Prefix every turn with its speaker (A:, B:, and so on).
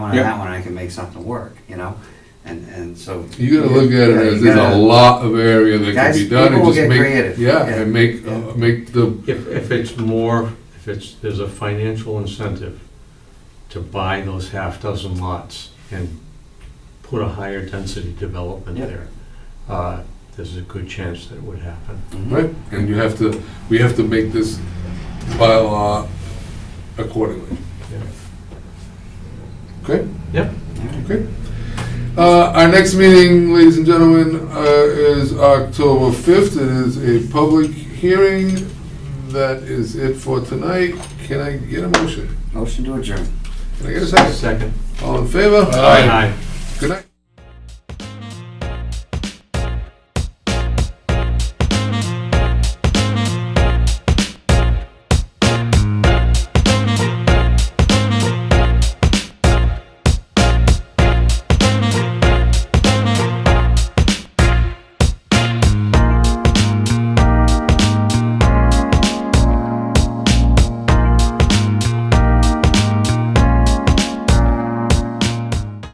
A: on
B: Yeah.
A: that one, I can make something work, you know? And, and so.
C: You gotta look at
A: Yeah,
C: it as
A: you
C: there's a
A: gotta-
C: lot of area that
A: Guys,
C: can be done
A: people
C: and
A: will
C: just
A: get
C: make,
A: creative.
C: yeah,
A: Yeah.
C: and make, uh, make the,
D: If, if it's more, if it's, there's a financial incentive to buy those half dozen lots and put a higher density development
A: Yeah.
D: there, uh, there's a good chance that it would happen.
A: Mhm.
C: right? And you have to, we have to make this bylaw accordingly.
D: Yeah.
C: Okay?
D: Yep.
C: Okay. Uh, Our next meeting, ladies and gentlemen, uh, is October 5th. It is a public hearing. That is it for tonight. Can I get a motion?
A: Motion to adjourn.
C: Can I get a second?
D: Second.
C: All in favor?
D: Aye.
C: Good night.